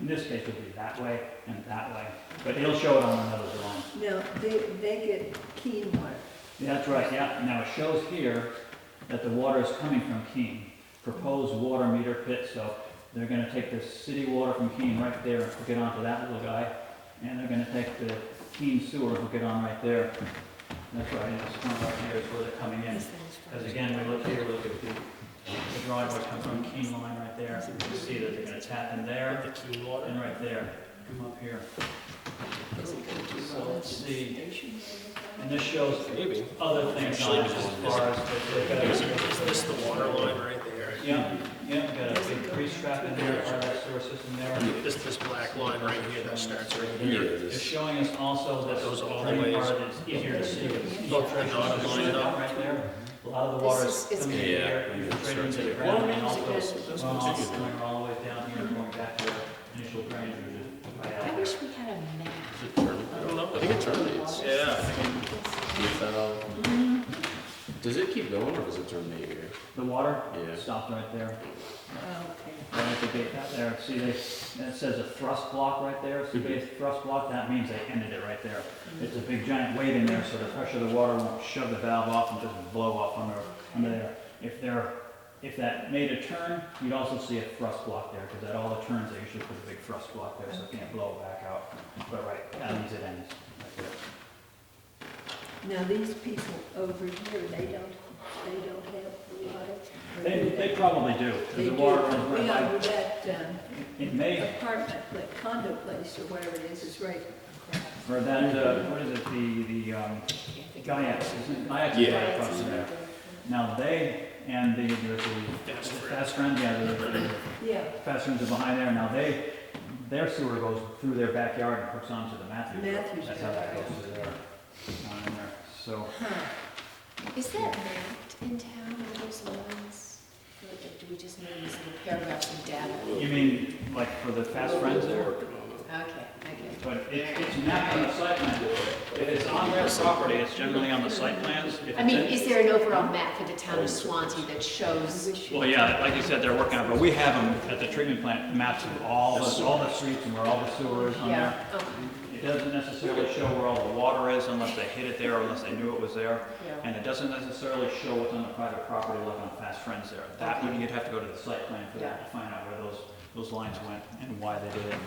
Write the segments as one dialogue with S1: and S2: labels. S1: in this case, it'll be that way and that way, but it'll show it on another drawing.
S2: No, they, they get keen water.
S1: Yeah, That's right, yeah, now it shows here that the water is coming from Keene, proposed water meter pit, so they're gonna take the city water from Keene right there and hook it onto that little guy, and they're gonna take the Keene sewer and hook it on right there. That's right, and this one right here is where they're coming in, because again, we look here, we look at the, the drawing where it comes from Keene line right there, you see that they're gonna tap in there,
S3: The key water.
S1: and right there, come up here. So let's see, and this shows
S3: Maybe.
S1: other things on it as far as the-
S3: Is
S1: the,
S3: is this the water line right there?
S1: yeah, yeah, got a big grease trap in there, part of that sewer system there.
S3: This, this black line right here that starts right
S4: Here
S3: here.
S4: it
S1: It's
S4: is.
S1: showing us also that those
S3: Goes all the
S1: drain
S3: way.
S1: part that's easier to see. with the
S3: Look, the dotted
S1: filtration
S3: line
S1: system
S3: up.
S1: Right there, a lot of the water is
S2: This is-
S1: coming in
S4: Yeah,
S1: here, and
S4: yeah, it
S1: draining
S4: starts
S1: to the
S4: here.
S1: ground, and
S2: Well,
S1: also
S2: it's good.
S3: Those
S1: runoff
S3: ones
S1: coming all the way down here and going back to the initial drainage, which is right
S5: I
S1: out there.
S5: wish we had a map.
S3: I don't know.
S4: I think it terminates.
S3: Yeah.
S4: We found- uh, Does it keep going or does it terminate here?
S1: The water
S4: Yeah.
S1: stopped right there,
S2: Okay.
S1: right at the gate out there. See, they, that says a thrust block right there, see, base thrust block, that means they ended it right there. It's a big giant weight in there, so the pressure of the water won't shove the valve off and just blow off under, under there. If there, if that made a turn, you'd also see a thrust block there, because at all the turns, they usually put a big thrust block there, so it can't blow back out. But right, that means it ends right there.
S2: Now, these people over here, they don't, they don't have water. or
S1: They,
S2: do
S1: they probably do, 'cause
S2: They
S1: the
S2: do,
S1: water runs right
S2: yeah,
S1: by,
S2: with that um,
S1: it may
S2: apartment, like condo place or wherever it is, is right.
S1: Or that, uh, what is it, the, the, um, Guyaks, isn't it? Guyaks is
S4: Yeah.
S1: right across from there. Now, they and the, there's the
S3: That's where-
S1: fast friends, yeah, the,
S2: Yeah,
S1: the fast friends are behind there. Now, they, their sewer goes through their backyard and hooks onto the Matthews. Road.
S2: Matthews
S1: That's how that goes
S2: Road.
S1: through there, down in there. So,
S5: Is that mapped in town, all those lines? Or like, Do we just know these little paragraphs and data?
S1: you mean, like, for the fast friends there?
S5: Okay, okay.
S1: But it, it's mapped on the site plan. If it's on their property, it's generally on the site plans. If it's
S5: I mean,
S1: in-
S5: is there an overall map for the town of Swansea that shows?
S1: Well, yeah, like you said, they're working on it, but we have them at the treatment plant, maps of all the, all the streets and where all the sewer is on there.
S5: Yeah, okay,
S1: It doesn't necessarily show where all the water is unless they hid it there or unless they knew it was there.
S5: yeah.
S1: And it doesn't necessarily show what's on the private property like on Fast Friends there. That would, you'd have to go to the site plan for that to find out where those, those lines went and why they did it,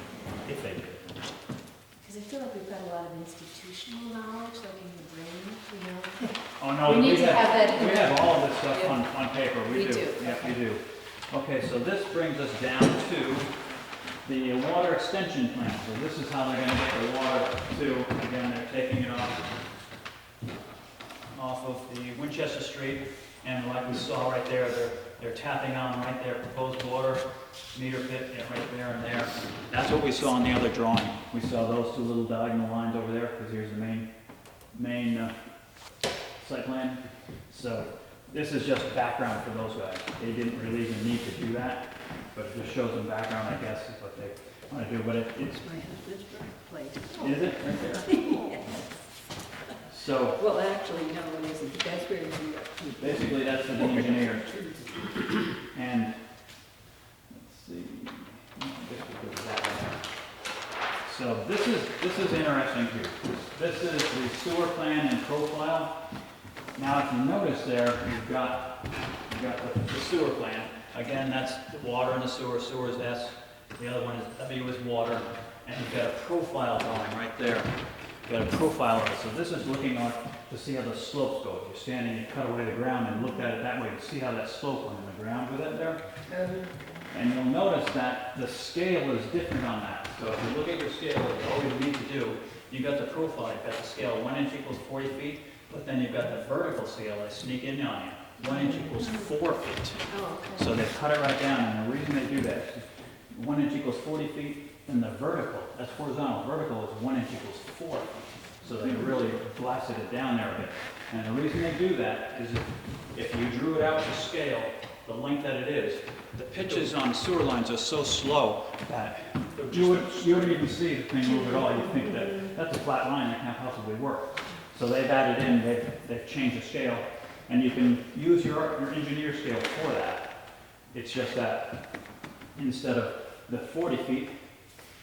S1: if they did. it.
S5: Because I feel like we've got a lot of institutional knowledge, like in the brain, you know?
S1: Oh, no,
S5: We need
S1: we
S5: to
S1: have,
S5: have that in
S1: we
S5: the-
S1: have all of this stuff
S5: Yeah.
S1: on, on paper, we
S5: We
S1: do.
S5: do,
S1: Yeah, we do. Okay, so this brings us down to the water extension plan. So this is how they're gonna get the water to, again, they're taking it off, off of the Winchester Street. And like we saw right there, they're, they're tapping on right there, proposed water meter pit, yeah, right there and there. That's what we saw in the other drawing. We saw those two little diagonal lines over there, because here's the main, main uh, site plan. So this is just background for those guys. They didn't really even need to do that, but it just shows them background, I guess, is what they want to do, but it- it's,
S2: It's my husband's birthplace.
S1: is it? Right there. So
S2: Well, actually, no, it isn't. That's where we are.
S1: basically, that's for the engineer. And, let's see, I guess we'll go with that one. So this is, this is interesting here. This is the sewer plan and profile. Now, if you notice there, you've got, you've got the- the sewer plan. Again, that's the water and the sewer, sewer is S, the other one is W is water, and you've got a profile drawing right there. You've got a profile of it, so this is looking on to see how the slopes go. If you're standing, you cut away the ground and looked at it that way, you see how that slope went in the ground with it there. And you'll notice that the scale is different on that. So if you look at your scale, what you always need to do, you've got the profile, you've got the scale, one inch equals forty feet, but then you've got the vertical scale, they sneak in on you. One inch equals four feet.
S5: Oh, okay.
S1: So they cut it right down, and the reason they do that is one inch equals forty feet, and the vertical, that's horizontal, vertical is one inch equals four. feet. So they really blasted it down there a bit. And the reason they do that is if, if you drew it out to scale, the length that it is, the pitches on sewer lines are so slow that you would, you wouldn't even see the thing move at all. You'd think that, that's a flat line, that can't possibly work. So they've added in, they've, they've changed the scale, and you can use your, your engineer scale for that. It's just that instead of the 40 feet,